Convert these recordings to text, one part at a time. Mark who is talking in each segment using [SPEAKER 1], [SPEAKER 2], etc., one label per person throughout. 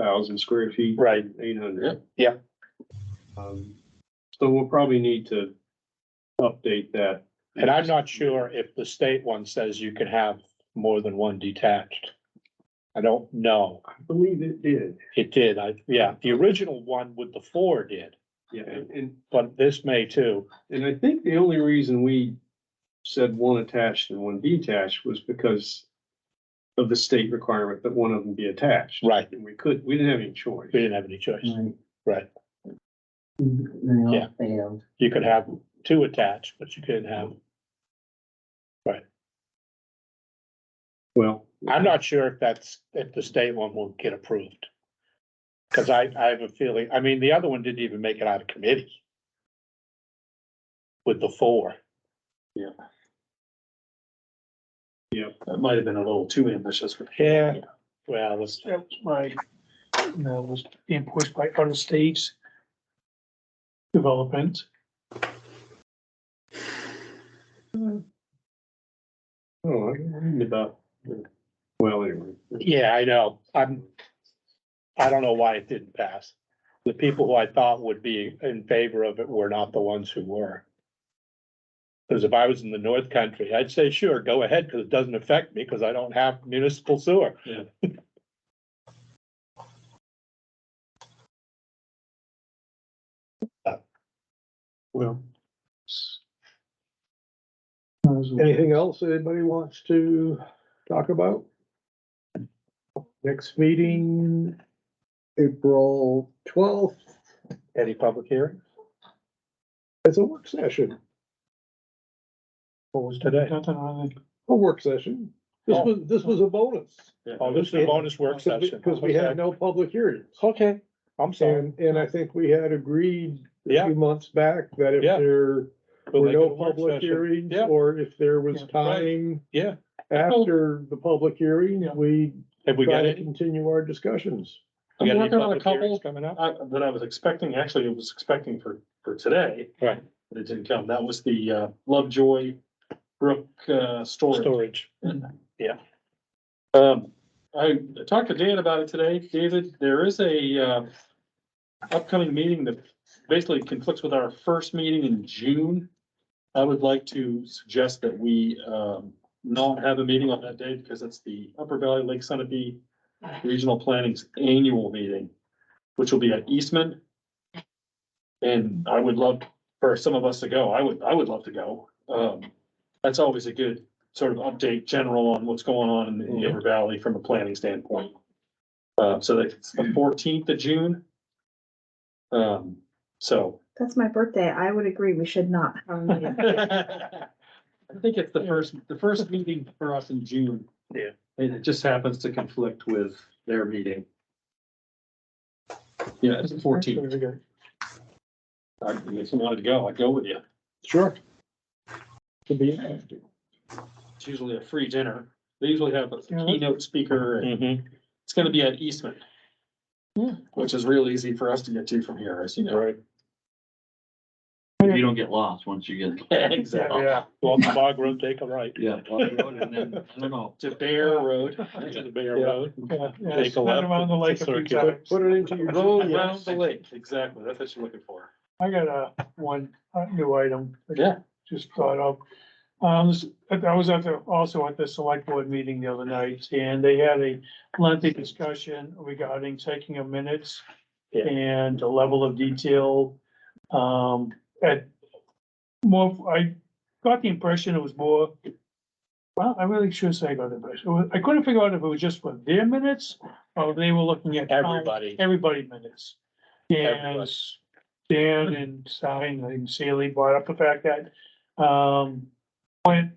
[SPEAKER 1] thousand square feet,
[SPEAKER 2] Right,
[SPEAKER 1] eight hundred.
[SPEAKER 2] Yeah.
[SPEAKER 1] Um, so we'll probably need to update that.
[SPEAKER 2] and I'm not sure if the state one says you can have more than one detached. I don't know.
[SPEAKER 1] I believe it did.
[SPEAKER 2] It did, I, yeah, the original one with the four did,
[SPEAKER 1] Yeah, and- and,
[SPEAKER 2] but this may too.
[SPEAKER 1] and I think the only reason we said one attached and one detached was because of the state requirement that one of them be attached.
[SPEAKER 2] Right.
[SPEAKER 1] And we could, we didn't have any choice.
[SPEAKER 2] We didn't have any choice. Right.
[SPEAKER 3] They all
[SPEAKER 2] Yeah.
[SPEAKER 3] failed.
[SPEAKER 2] You could have two attached, but you couldn't have,
[SPEAKER 1] Well.
[SPEAKER 2] I'm not sure if that's, if the state one will get approved. Cause I, I have a feeling, I mean, the other one didn't even make it out of committee. With the four.
[SPEAKER 4] That might have been a little too ambitious for.
[SPEAKER 2] Yeah. Well, it's-
[SPEAKER 5] That was my, you know, was being pushed by other states. Development.
[SPEAKER 1] Oh, I'm worried about, well, anyway.
[SPEAKER 2] yeah, I know, I'm, I don't know why it didn't pass. The people who I thought would be in favor of it were not the ones who were. Cause if I was in the north country, I'd say, sure, go ahead, cause it doesn't affect me, cause I don't have municipal sewer.
[SPEAKER 1] Well.
[SPEAKER 6] Anything else anybody wants to talk about? Next meeting, April twelfth,
[SPEAKER 2] Any public hearing?
[SPEAKER 6] it's a work session,
[SPEAKER 2] What was today?
[SPEAKER 6] a work session. This was, this was a bonus.
[SPEAKER 2] Oh, this is a bonus Oh. work session.
[SPEAKER 6] Because we had no public hearings.
[SPEAKER 2] Okay, I'm sorry.
[SPEAKER 6] And, and I think we had agreed a
[SPEAKER 2] Yeah.
[SPEAKER 6] few months back that if
[SPEAKER 2] Yeah.
[SPEAKER 6] there
[SPEAKER 2] We'll
[SPEAKER 6] were
[SPEAKER 2] make it a
[SPEAKER 6] no
[SPEAKER 2] work
[SPEAKER 6] public
[SPEAKER 2] session.
[SPEAKER 6] hearings,
[SPEAKER 2] Yeah.
[SPEAKER 6] or if there was
[SPEAKER 5] Yeah.
[SPEAKER 2] Right.
[SPEAKER 6] time
[SPEAKER 2] Yeah,
[SPEAKER 6] after the public hearing,
[SPEAKER 5] Yeah.
[SPEAKER 6] we
[SPEAKER 2] have we
[SPEAKER 6] try
[SPEAKER 2] got
[SPEAKER 6] to
[SPEAKER 2] it?
[SPEAKER 6] continue our discussions.
[SPEAKER 2] We got
[SPEAKER 4] I'm
[SPEAKER 2] any
[SPEAKER 4] working on a
[SPEAKER 2] public hearings
[SPEAKER 4] couple
[SPEAKER 2] coming up?
[SPEAKER 4] uh, that I was expecting, actually, I was expecting for, for today,
[SPEAKER 2] Right,
[SPEAKER 4] but it didn't come. That was the uh, Lovejoy Brook uh, storage.
[SPEAKER 2] storage.
[SPEAKER 4] Um, I talked to Dan about it today. David, there is a uh, upcoming meeting that basically conflicts with our first meeting in June. I would like to suggest that we um, not have a meeting on that day because it's the Upper Valley Lake Sunapee Regional Planning's annual meeting, which will be at Eastman. And I would love for some of us to go. I would, I would love to go. Um, that's always a good sort of update general on what's going on in the Upper Valley from a planning standpoint. Uh, so that's the fourteenth of June. Um, so.
[SPEAKER 7] That's my birthday. I would agree. We should not have a meeting.
[SPEAKER 4] I think it's the first, the first meeting for us in June.
[SPEAKER 2] Yeah.
[SPEAKER 4] And it just happens to conflict with their meeting. Yeah, it's the fourteenth. If you wanted to go, I'd go with you.
[SPEAKER 6] Sure. To be active.
[SPEAKER 4] It's usually a free dinner. They usually have a
[SPEAKER 5] Yeah.
[SPEAKER 4] keynote speaker and
[SPEAKER 2] Mm-hmm,
[SPEAKER 4] it's gonna be at Eastman. Which is real easy for us to get to from here, as you know.
[SPEAKER 2] right.
[SPEAKER 8] You don't get lost once you get,
[SPEAKER 4] Exactly.
[SPEAKER 2] Yeah, go on the bog road, take a right.
[SPEAKER 8] yeah, off the road and then, I don't know.
[SPEAKER 4] To Bear Road.
[SPEAKER 2] To the Bear
[SPEAKER 6] Yeah.
[SPEAKER 2] Road.
[SPEAKER 5] Yeah, yeah,
[SPEAKER 2] Take a
[SPEAKER 5] spin
[SPEAKER 2] left,
[SPEAKER 5] around the lake
[SPEAKER 2] it's
[SPEAKER 5] a
[SPEAKER 2] a
[SPEAKER 5] few
[SPEAKER 2] circular.
[SPEAKER 5] times.
[SPEAKER 6] Put it into your.
[SPEAKER 4] Go around the lake, exactly. That's what you're looking for.
[SPEAKER 5] I got a one, uh new item. that
[SPEAKER 4] Yeah.
[SPEAKER 5] Just thought of. Um, s- I was at the, also at the select board meeting the other night and they had a lengthy discussion regarding taking of minutes.
[SPEAKER 2] Yeah.
[SPEAKER 5] And the level of detail, um, at more, I got the impression it was more. Well, I really should say I got the impression. I couldn't figure out if it was just for their minutes or they were looking at. town-
[SPEAKER 2] Everybody,
[SPEAKER 5] everybody minutes. And
[SPEAKER 2] Everybody.
[SPEAKER 5] Dan and Stein and Sealy brought up the fact that, um, plant,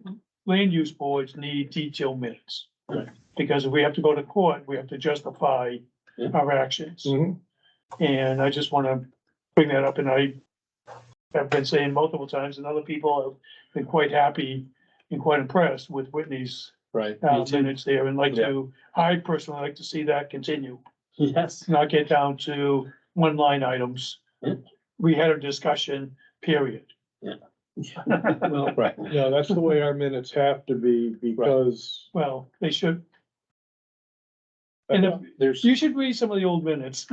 [SPEAKER 5] land use boards need detailed minutes.
[SPEAKER 4] Right.
[SPEAKER 5] Because if we have to go to court, we have to justify
[SPEAKER 4] Yeah. Mm.
[SPEAKER 5] our actions.
[SPEAKER 6] Mhm.
[SPEAKER 5] And I just wanna bring that up, and I have been saying multiple times, and other people have been quite happy and quite impressed with Whitney's
[SPEAKER 2] right.
[SPEAKER 5] uh, minutes there, and like
[SPEAKER 2] Yeah.
[SPEAKER 5] to, I personally like to see that continue
[SPEAKER 4] Yes.
[SPEAKER 5] not get down to one line items.
[SPEAKER 4] Yeah.
[SPEAKER 5] We had a discussion, period.
[SPEAKER 4] Well,
[SPEAKER 2] Right.
[SPEAKER 6] No, that's the way our minutes have to be because
[SPEAKER 5] Well, they should, And if-
[SPEAKER 2] There's.
[SPEAKER 5] you should read some of the old minutes.